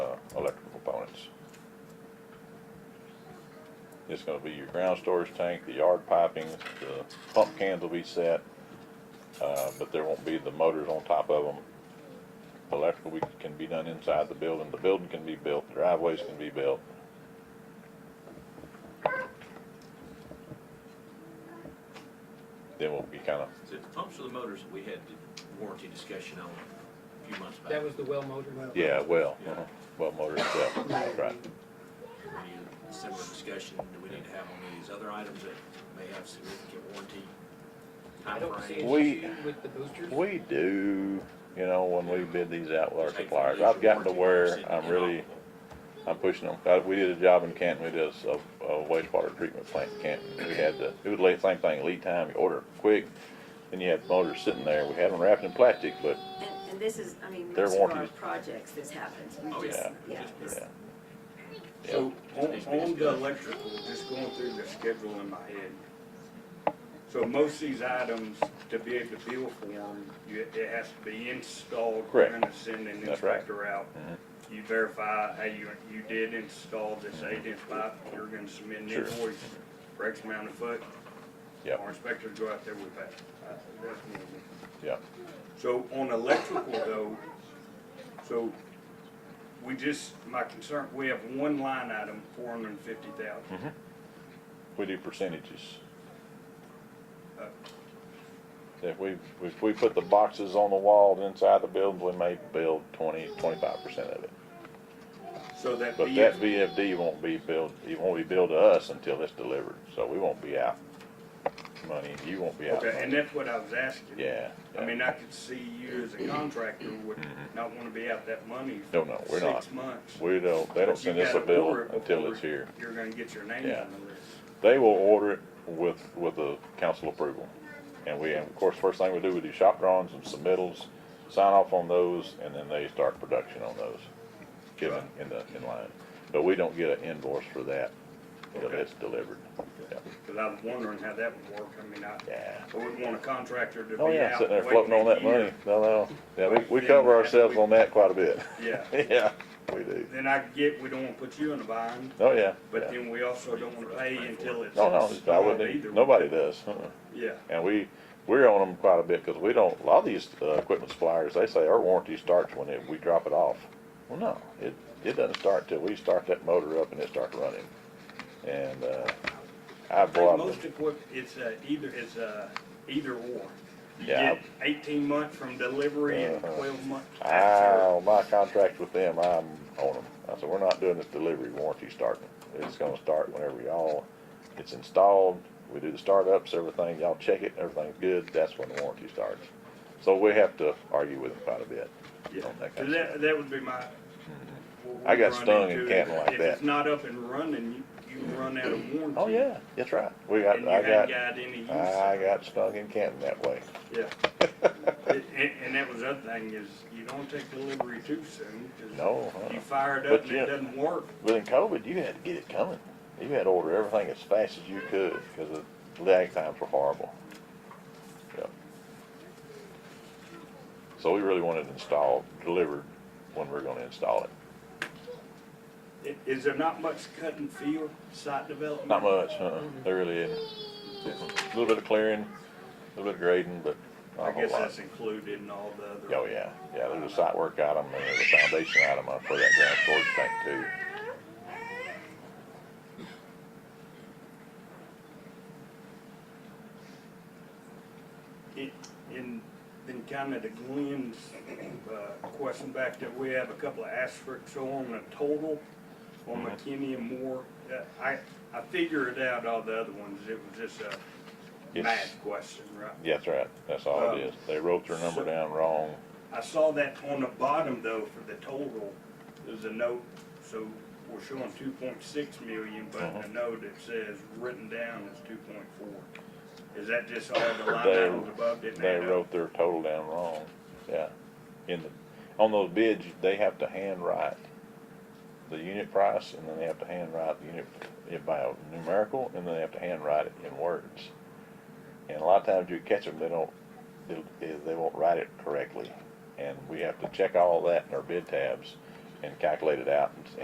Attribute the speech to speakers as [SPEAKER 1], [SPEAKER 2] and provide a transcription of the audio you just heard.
[SPEAKER 1] It's gonna be your ground storage tank, the yard pipings, the pump cans will be set, uh, but there won't be the motors on top of them. Electrical we- can be done inside the building, the building can be built, driveways can be built. Then we'll be kinda,
[SPEAKER 2] Is it the pumps or the motors that we had the warranty discussion on a few months back?
[SPEAKER 3] That was the well motor.
[SPEAKER 1] yeah, well, uh-huh, well, motor itself, right.
[SPEAKER 2] Any similar discussion do we need to have on any of these other items that may have significant warranty
[SPEAKER 3] I don't see
[SPEAKER 2] timeframes?
[SPEAKER 3] an
[SPEAKER 1] We-
[SPEAKER 3] issue with the boosters.
[SPEAKER 1] We do, you know, when we bid these out with our
[SPEAKER 2] Just take
[SPEAKER 1] suppliers,
[SPEAKER 2] from these
[SPEAKER 1] I've gotten to where
[SPEAKER 2] warranty
[SPEAKER 1] I'm
[SPEAKER 2] policies
[SPEAKER 1] really,
[SPEAKER 2] and
[SPEAKER 1] I'm pushing them. Uh, We did a job in Canton, we did a a wastewater treatment plant in Canton, we had the, it was late, same thing, lead time, you order quick, then you had motors sitting there, we had them wrapped in plastic, but,
[SPEAKER 4] And, and this is, I mean,
[SPEAKER 1] Their
[SPEAKER 4] most of our
[SPEAKER 1] warranties.
[SPEAKER 4] projects, this happens. We
[SPEAKER 2] Oh,
[SPEAKER 4] just-
[SPEAKER 1] yeah.
[SPEAKER 4] Yeah,
[SPEAKER 2] Just-
[SPEAKER 4] this-
[SPEAKER 1] yeah.
[SPEAKER 5] So on,
[SPEAKER 2] Needs to be
[SPEAKER 5] on the
[SPEAKER 2] discussed.
[SPEAKER 5] electrical, just going through the schedule in my head. So most of these items, to be able to bill for them, you, it has to be installed.
[SPEAKER 1] Correct.
[SPEAKER 5] We're gonna send an
[SPEAKER 1] That's right. Mm-hmm.
[SPEAKER 5] inspector out. You verify how you, you did install this eight inch pipe, you're gonna submit an
[SPEAKER 1] Sure.
[SPEAKER 5] invoice for X amount of foot.
[SPEAKER 1] Yep.
[SPEAKER 5] Our inspectors go out there, we pay. Uh, that's normal.
[SPEAKER 1] Yeah,
[SPEAKER 5] So on electrical though, so we just, my concern, we have one line item, four hundred and fifty thousand.
[SPEAKER 1] Mm-hmm. we do percentages.
[SPEAKER 5] Uh.
[SPEAKER 1] If we, if we put the boxes on the wall inside the building, we may build twenty, twenty-five percent of it.
[SPEAKER 5] So that
[SPEAKER 1] But that
[SPEAKER 5] VF,
[SPEAKER 1] VFD won't be billed, it won't be billed to us until it's delivered, so we won't be out money, you won't be out
[SPEAKER 5] okay,
[SPEAKER 1] money.
[SPEAKER 5] and that's what I was asking.
[SPEAKER 1] Yeah,
[SPEAKER 5] I
[SPEAKER 1] yeah. Mm-hmm.
[SPEAKER 5] mean, I could see you as a contractor would not wanna be out that money. for
[SPEAKER 1] No, no, we're not.
[SPEAKER 5] Six months.
[SPEAKER 1] We don't, they don't
[SPEAKER 5] But you
[SPEAKER 1] send us a
[SPEAKER 5] gotta
[SPEAKER 1] bill
[SPEAKER 5] order it
[SPEAKER 1] until
[SPEAKER 5] before
[SPEAKER 1] it's here.
[SPEAKER 5] You're gonna get your name
[SPEAKER 1] Yeah.
[SPEAKER 5] on the list.
[SPEAKER 1] They will order it with, with the council approval. And we, and of course, first thing we do, we do shop drawings and submittals, sign off on those, and then they start production on those. Get them in the, in line. But we don't get an invoice for that until
[SPEAKER 5] Okay.
[SPEAKER 1] it's delivered. Yeah.
[SPEAKER 5] Cause I was wondering how that would work. I mean, I,
[SPEAKER 1] Yeah.
[SPEAKER 5] I wouldn't want a contractor to be out.
[SPEAKER 1] Oh, yeah, sitting there
[SPEAKER 5] waiting
[SPEAKER 1] floating on
[SPEAKER 5] a
[SPEAKER 1] that
[SPEAKER 5] year.
[SPEAKER 1] money. No, no. Yeah, we, we
[SPEAKER 5] Then
[SPEAKER 1] cover
[SPEAKER 5] we-
[SPEAKER 1] ourselves on that quite a bit.
[SPEAKER 5] Yeah.
[SPEAKER 1] Yeah, we do.
[SPEAKER 5] Then I get, we don't wanna put you in a bind.
[SPEAKER 1] Oh, yeah.
[SPEAKER 5] But
[SPEAKER 1] yeah.
[SPEAKER 5] then we also don't wanna pay until it's.
[SPEAKER 1] No, no, I
[SPEAKER 5] installed
[SPEAKER 1] wouldn't,
[SPEAKER 5] either.
[SPEAKER 1] nobody does. Uh-uh.
[SPEAKER 5] Yeah,
[SPEAKER 1] And we, we're on them quite a bit because we don't, a lot of these, uh, equipment suppliers, they say our warranty starts when it, we drop it off. Well, no, it, it doesn't start till we start that motor up and it starts running. And, uh, I
[SPEAKER 5] I think
[SPEAKER 1] bought
[SPEAKER 5] most
[SPEAKER 1] it.
[SPEAKER 5] equip, it's uh either, it's uh either or. You
[SPEAKER 1] Yeah.
[SPEAKER 5] get Eighteen month from delivery and
[SPEAKER 1] Uh-huh.
[SPEAKER 5] twelve month.
[SPEAKER 1] I, on my contract with them, I'm on them. I said, we're not doing this delivery warranty starting. It's gonna start whenever y'all, it's installed, we do the startups, everything, y'all check it, everything's good, that's when the warranty starts. So we have to argue with them quite a bit.
[SPEAKER 5] Yeah,
[SPEAKER 1] on that kind
[SPEAKER 5] so
[SPEAKER 1] of stuff.
[SPEAKER 5] that, that would be my. what
[SPEAKER 1] I
[SPEAKER 5] we
[SPEAKER 1] got
[SPEAKER 5] run
[SPEAKER 1] stung in
[SPEAKER 5] into.
[SPEAKER 1] Canton like
[SPEAKER 5] If it's
[SPEAKER 1] that.
[SPEAKER 5] not up and running, you, you run out of warranty.
[SPEAKER 1] Oh, yeah, that's right. We got,
[SPEAKER 5] And you
[SPEAKER 1] I
[SPEAKER 5] ain't
[SPEAKER 1] got,
[SPEAKER 5] got any use.
[SPEAKER 1] I got stung in Canton that way.
[SPEAKER 5] Yeah. And, and that was the other thing is you don't take delivery too soon. 'cause
[SPEAKER 1] No, uh-uh.
[SPEAKER 5] You fire it
[SPEAKER 1] But
[SPEAKER 5] up and
[SPEAKER 1] yeah.
[SPEAKER 5] it doesn't work.
[SPEAKER 1] But in COVID, you had to get it coming. You had to order everything as fast as you could because the lag times were horrible. Yep. So we really wanted it installed, delivered when we we're gonna install it.
[SPEAKER 5] I- Is there not much cut and field site development?
[SPEAKER 1] Not much, uh-uh.
[SPEAKER 5] Mm-hmm.
[SPEAKER 1] There really isn't. A little bit of clearing, a little bit of grading, but not
[SPEAKER 5] I
[SPEAKER 1] a whole
[SPEAKER 5] guess
[SPEAKER 1] lot.
[SPEAKER 5] that's included in all the other.
[SPEAKER 1] Oh, yeah. Yeah, there's a site work item and there's a foundation item up for that ground storage tank too.
[SPEAKER 5] It, in, in kind of the Glenn's, uh, question back that we have a couple of asterisks on the total
[SPEAKER 1] Mm-hmm.
[SPEAKER 5] on McKinney and Moore. Uh, I, I figured it out all the other ones. It was just a
[SPEAKER 1] Yes.
[SPEAKER 5] math question, right?
[SPEAKER 1] Yeah, that's right. That's all it
[SPEAKER 5] Um,
[SPEAKER 1] is. They wrote their number
[SPEAKER 5] so-
[SPEAKER 1] down wrong.
[SPEAKER 5] I saw that on the bottom though for the total, there's a note, so we're showing two point six million, but
[SPEAKER 1] Uh-huh.
[SPEAKER 5] in the note it says written down is two point four. Is that just all the line
[SPEAKER 1] They-
[SPEAKER 5] items above didn't
[SPEAKER 1] They
[SPEAKER 5] add up?
[SPEAKER 1] wrote their total down wrong. Yeah. In the, on those bids, they have to handwrite the unit price and then they have to handwrite the unit it by a numerical and then they have to handwrite it in words. And a lot of times you catch them, they don't, they, they won't write it correctly. And we have to check all that in our bid tabs and calculate it out and,